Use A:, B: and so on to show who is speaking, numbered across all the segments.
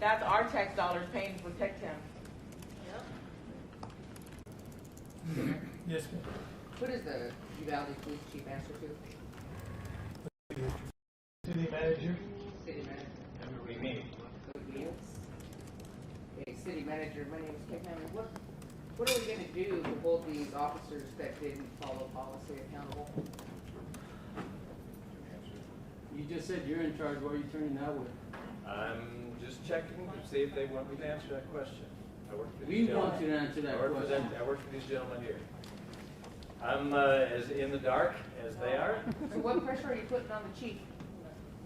A: That's our tax dollars paying to protect him.
B: Yes, ma'am.
C: What is the Uvalde Police Chief answer to?
B: City manager?
C: City manager? That would be Okay, city manager, my name is Kevin Hammond. What, what are we gonna do to hold these officers that didn't follow policy accountable?
D: You just said you're in charge, why are you turning that way?
E: I'm just checking to see if they want me to answer that question. I work for
D: We
E: these
D: want you
E: gentlemen.
D: to answer
E: I
D: that
E: work for them,
D: question.
E: I work for these gentlemen here. I'm uh, as in the dark as they are.
C: So what pressure are you putting on the chief?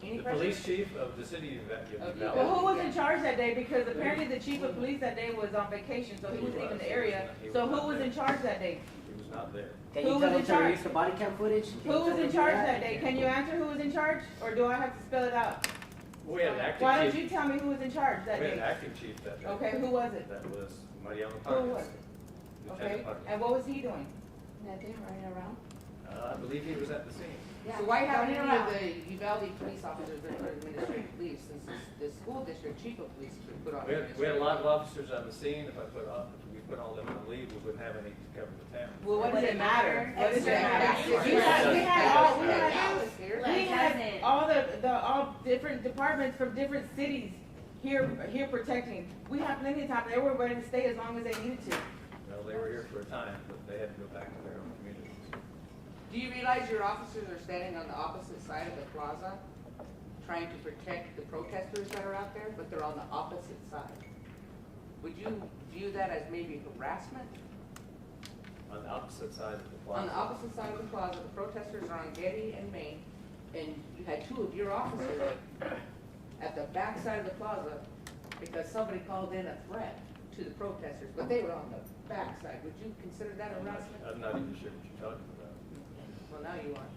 C: Any
E: The
C: pressure?
E: police chief of the city of Val- of
C: Of Uvalde.
A: Well,
E: Valley.
A: who was in charge that day? Because apparently the chief of police that day was on vacation, so he wasn't even in the area. So who was in charge that day?
E: He was not there.
F: Can
A: Who
F: you
A: was
F: tell
A: in
F: them to
A: charge?
F: use the body cam footage? Can you
A: Who was
F: tell
A: in
F: them
A: charge that day? Can you answer who was in charge, or do I have to spell it out?
E: We had an
A: Why
E: acting
A: don't
E: chief,
A: you tell me who was in charge
E: we
A: that
E: had an
A: day?
E: acting chief that day.
A: Okay, who was it?
E: That was Mariano
A: Who
E: Parks,
A: was it?
E: Lieutenant
A: Okay,
E: Parks.
A: and what was he doing?
G: Nothing running around?
E: Uh, I believe he was at the scene.
G: Yeah.
A: So why
C: How
A: haven't
C: many
A: you
C: of the Uvalde police officers that are administrative police, since the, the school district chief of police could put on
E: We had, we had a
C: administrative
E: lot of
C: leave?
E: officers on the scene. If I put, all- if we put all them on leave, we wouldn't have any to cover the town.
A: Well, what does it matter? What does it matter?
C: Exactly.
A: You had, we had all, we had,
C: Alice here.
A: we had all the, the, all different departments from different cities here, here protecting. We had plenty of time, they were ready to stay as long as they needed to.
E: Well, they were here for a time, but they had to go back to their own communities.
C: Do you realize your officers are standing on the opposite side of the plaza, trying to protect the protesters that are out there, but they're on the opposite side? Would you view that as maybe harassment?
E: On the opposite side of the
C: On the
E: plaza.
C: opposite side of the plaza, the protesters are on Getty and Main, and you had two of your officers at the back side of the plaza because somebody called in a threat to the protesters, but they were on the back side. Would you consider that
E: I'm not-
C: harassment?
E: I'm not even sure what you're talking about.
C: Well, now you are.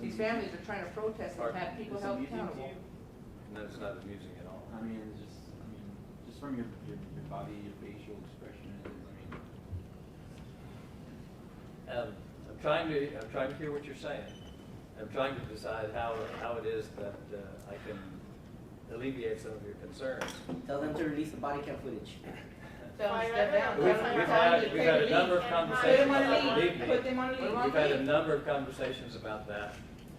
C: These families are trying to protest and have people
H: It's
C: held
H: amusing to
C: accountable.
H: you?
E: No, it's not amusing at all.
H: I mean, it's just, I mean, just from your, your, your body, your facial expression, it- I mean,
E: Um, I'm trying to, I'm trying to hear what you're saying. I'm trying to decide how, how it is that uh, I can alleviate some of your concerns.
F: Tell them to release the body cam footage.
A: Tell them to step down.
E: We've, we've had, we've had a number of
A: Put
E: conversations
A: them on
E: about
A: a leave,
E: leaving.
A: put them on a
C: Put them
A: leave.
C: on-
E: We've had a number of conversations about that,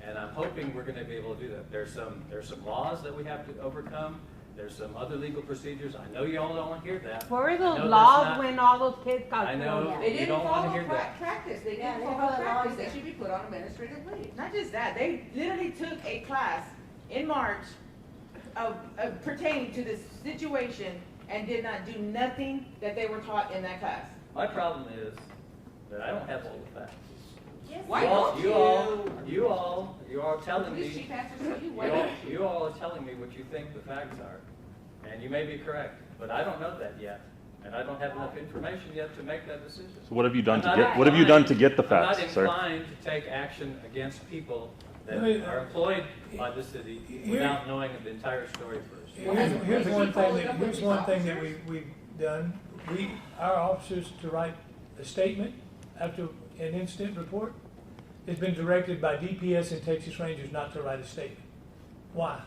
E: and I'm hoping we're gonna be able to do that. There's some, there's some laws that we have to overcome, there's some other legal procedures, I know you all don't wanna hear that.
I: Where were
E: I know
I: those
E: that's
I: laws
E: not-
I: when all those kids got
E: I
I: thrown
E: know.
I: out?
C: They
E: You
C: didn't
E: don't wanna
C: follow
E: hear
C: pra-
E: that.
C: practice, they
G: Yeah,
C: didn't
G: they
C: follow
G: follow
C: practice, they
G: laws.
C: should be put on administrative leave.
A: Not just that, they literally took a class in March of, of pertaining to this situation and did not do nothing that they were taught in that class.
E: My problem is that I don't have all the facts.
C: Why
E: all-
C: don't you?
E: all, you all, you all are telling
C: Police chief
E: me,
C: answers to you,
E: you
C: why
E: all,
C: don't
E: you all are telling me what you think the facts are. And you may be correct, but I don't know that yet, and I don't have enough information yet to make that decision.
J: So what have you done to
E: I'm not
J: get, what have you done to
E: inclined-
J: get the facts,
E: I'm
J: sir?
E: not inclined to take action against people that
B: Let me- uh,
E: are employed by the city
B: Here-
E: without knowing the entire story first.
B: Here's, here's
C: Is he
B: one thing,
C: following
B: that
C: up with
B: here's
C: these
B: one thing that we,
C: officers?
B: we've done. We, our officers to write a statement after an incident report. It's been directed by DPS and Texas Rangers not to write a statement. Why?
A: Yeah,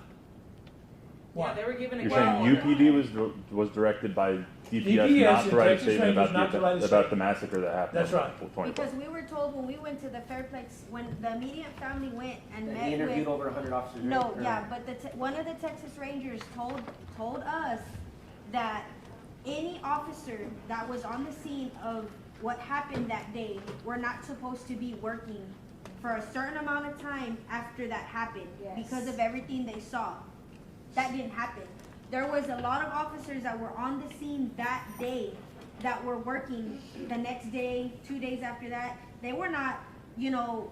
B: Why?
A: they were given a.
J: You're
A: gag
J: saying
A: order.
J: UPD was, dir- was directed by DPS
B: DPS
J: not
B: and
J: to write a
B: Texas
J: statement
B: Rangers
J: about
B: not to
J: the,
B: write a
J: event- about the massacre that happened.
B: That's
J: on
B: right.
J: 24.
G: Because we were told when we went to the Fairplex, when the immediate family went and
F: They
G: met
F: interviewed
G: with.
F: over hundred officers.
G: No,
F: right? Or-
G: yeah, but the, te- one of the Texas Rangers told, told us that any officer that was on the scene of what happened that day were not supposed to be working for a certain amount of time after that happened. Because of everything they saw. That didn't happen. There was a lot of officers that were on the scene that day that were working the next day, two days after that. They were not, you know,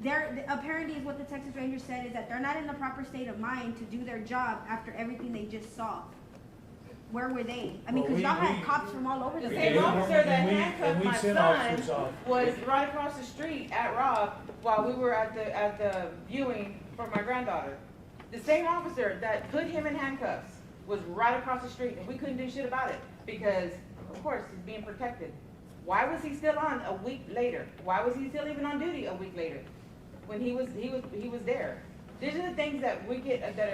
G: they're apparently is what the Texas Rangers said is that they're not in the proper state of mind to do their job after everything they just saw. Where were they? I mean,
B: Well,
G: because
B: we-
G: y'all
B: we-
G: had cops from all over the
A: The
G: place.
A: same
B: Yeah.
A: officer that
B: And we- and
A: handcuffed
B: we
A: my
B: sent officers
A: son
B: off.
A: was right across the street at Rob while we were at the, at the viewing for my granddaughter. The same officer that put him in handcuffs was right across the street and we couldn't do shit about it because, of course, he's being protected. Why was he still on a week later? Why was he still even on duty a week later? When he was, he was, he was there. These are the things that we get, that